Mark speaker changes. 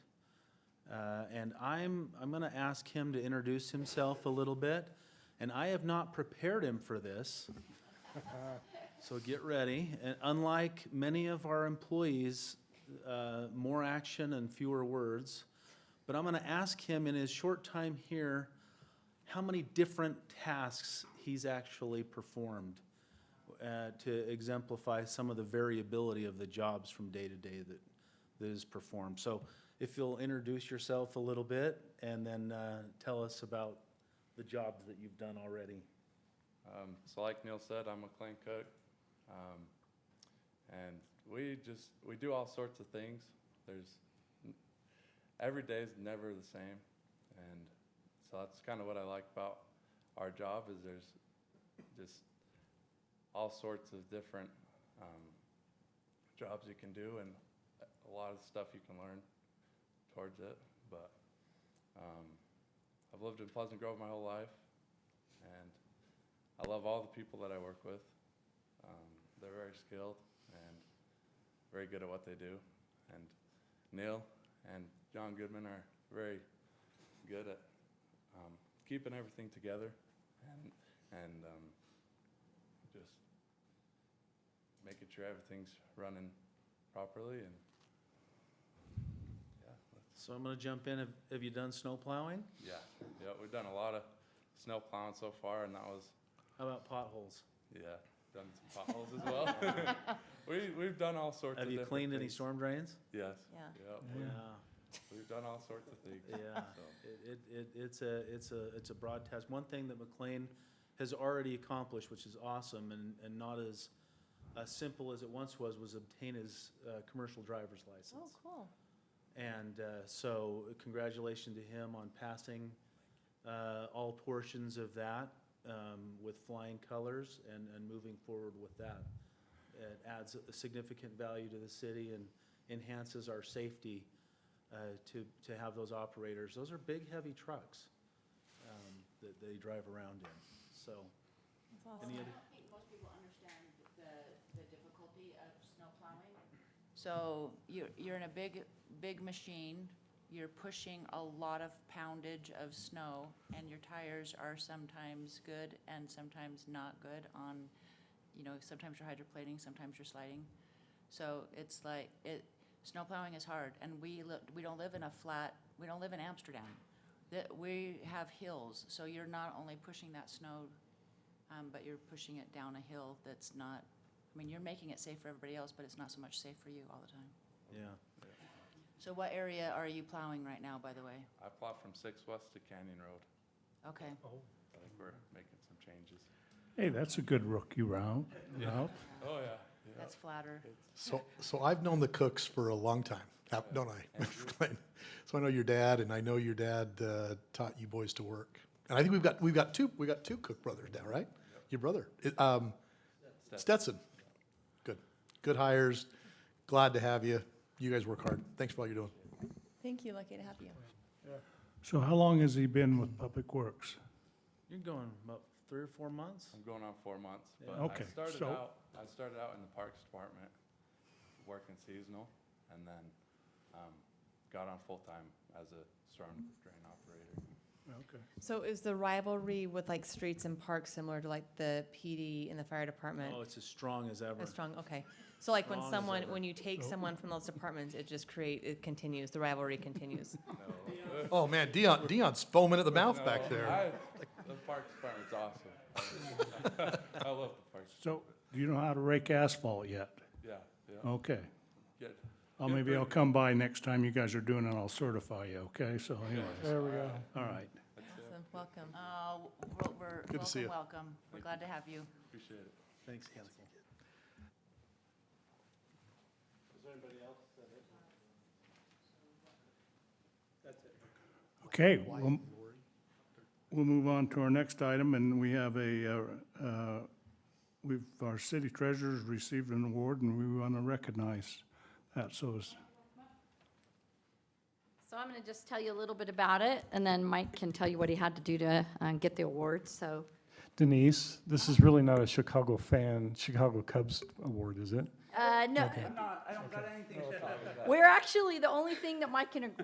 Speaker 1: Uh, And I'm, I'm going to ask him to introduce himself a little bit. And I have not prepared him for this. So get ready. And unlike many of our employees, uh, more action and fewer words. But I'm going to ask him in his short time here, how many different tasks he's actually performed uh, to exemplify some of the variability of the jobs from day to day that, that is performed. So if you'll introduce yourself a little bit and then uh, tell us about the jobs that you've done already.
Speaker 2: Um, so like Neil said, I'm a clan cook. Um, and we just, we do all sorts of things. There's, n- every day is never the same. And so that's kind of what I like about our job is there's just all sorts of different, um, jobs you can do and a- a lot of stuff you can learn towards it. But, um, I've lived in Pleasant Grove my whole life and I love all the people that I work with. Um, they're very skilled and very good at what they do. And Neil and John Goodman are very good at um, keeping everything together and, and um, just making sure everything's running properly. And yeah, that's-
Speaker 1: So I'm going to jump in. Have- Have you done snow plowing?
Speaker 2: yeah, yeah, we've done a lot of snow plowing so far, and that was
Speaker 1: How about potholes?
Speaker 2: Yeah, done some potholes as well. we we've done all sorts.
Speaker 1: Have
Speaker 2: of
Speaker 1: you
Speaker 2: different
Speaker 1: cleaned any
Speaker 2: things.
Speaker 1: storm drains?
Speaker 2: Yes.
Speaker 3: Yeah.
Speaker 2: Yeah. We, we've done all sorts of things.
Speaker 1: Yeah, yeah.
Speaker 2: So
Speaker 1: It, it, it, it's a, it's a, it's a broad task. One thing that McLean has already accomplished, which is awesome and, and not as, as simple as it once was, was obtain his, uh, commercial driver's
Speaker 3: Oh,
Speaker 1: license.
Speaker 3: cool.
Speaker 1: And, uh, so congratulations to him on passing, uh, all portions of that, um, with flying colors and, and moving forward with that. It adds a significant value to the city and enhances our safety, uh, to, to have those operators. Those are big, heavy trucks um, that they drive around in. So,
Speaker 3: That's
Speaker 1: any
Speaker 3: awesome.
Speaker 1: other,
Speaker 4: I think most people understand the, the difficulty of snow plowing.
Speaker 3: So you're, you're in a big, big machine, you're pushing a lot of poundage of snow, and your tires are sometimes good and sometimes not good on, you know, sometimes you're hydroplaning, sometimes you're sliding. So it's like, it, snow plowing is hard, and we li- we don't live in a flat, we don't live in Amsterdam. That, we have hills, so you're not only pushing that snow, um, but you're pushing it down a hill that's not I mean, you're making it safe for everybody else, but it's not so much safe for you all the time.
Speaker 1: yeah.
Speaker 3: So what area are you plowing right now, by the way?
Speaker 2: I plot from Six West to Canyon Road.
Speaker 3: Okay,
Speaker 5: Oh,
Speaker 2: I think we're making some changes.
Speaker 6: Hey, that's a good rookie round. route.
Speaker 2: Oh yeah. yeah.
Speaker 3: that's flatter.
Speaker 5: So, so I've known the Cooks for a long time, hap- don't I?
Speaker 2: Andrew?
Speaker 5: Glenn? So I know your dad, and I know your dad uh, taught you boys to work. And I think we've got, we've got two, we got two Cook brothers now, right? Your brother, i- um,
Speaker 2: Stetson.
Speaker 5: Stetson. Good, good hires. Glad to have you. You guys work hard. Thanks for all you're doing.
Speaker 7: Thank you, lucky to have you.
Speaker 6: So how long has he been with Public Works?
Speaker 1: You're going about three or four months?
Speaker 2: I'm going on four months,
Speaker 1: Yeah.
Speaker 2: but
Speaker 6: Okay,
Speaker 2: I started
Speaker 6: so-
Speaker 2: out. I started out in the Parks Department, working seasonal, and then um, got on full time as a storm drain operator.
Speaker 6: Okay.
Speaker 7: So is the rivalry with like streets and parks similar to like the PD and the fire department?
Speaker 1: Oh, it's as strong as ever.
Speaker 7: As strong, okay. So like when
Speaker 1: Strong as
Speaker 7: someone,
Speaker 1: ever.
Speaker 7: when you take
Speaker 6: So-
Speaker 7: someone from those departments, it just create, it continues, the rivalry continues.
Speaker 2: No.
Speaker 5: Oh, man, Dion, Dion's foaming at the mouth
Speaker 2: No,
Speaker 5: back there.
Speaker 2: I- The Parks Department's awesome. I love the Parks.
Speaker 6: So do you know how to rake asphalt yet?
Speaker 2: Yeah, yeah,
Speaker 6: Okay.
Speaker 2: good.
Speaker 6: Well,
Speaker 2: Good
Speaker 6: maybe I'll
Speaker 2: burger.
Speaker 6: come by next time you guys are doing it. I'll certify you, okay? So anyways. There we go. All right.
Speaker 7: Awesome, welcome.
Speaker 3: Uh, we're, we're,
Speaker 5: Good to see
Speaker 3: welcome,
Speaker 5: you.
Speaker 3: welcome. We're glad to have you.
Speaker 2: Appreciate it.
Speaker 1: Thanks, council.
Speaker 6: Okay, we'll, we'll move on to our next item, and we have a, uh, uh, we've, our city treasurer's received an award, and we want to recognize that. So is
Speaker 4: So I'm going to just tell you a little bit about it, and then Mike can tell you what he had to do to uh, get the award, so.
Speaker 8: Denise, this is really not a Chicago fan, Chicago Cubs award, is it?
Speaker 4: Uh, no,
Speaker 8: Okay.
Speaker 4: we're actually, the only thing that Mike can agree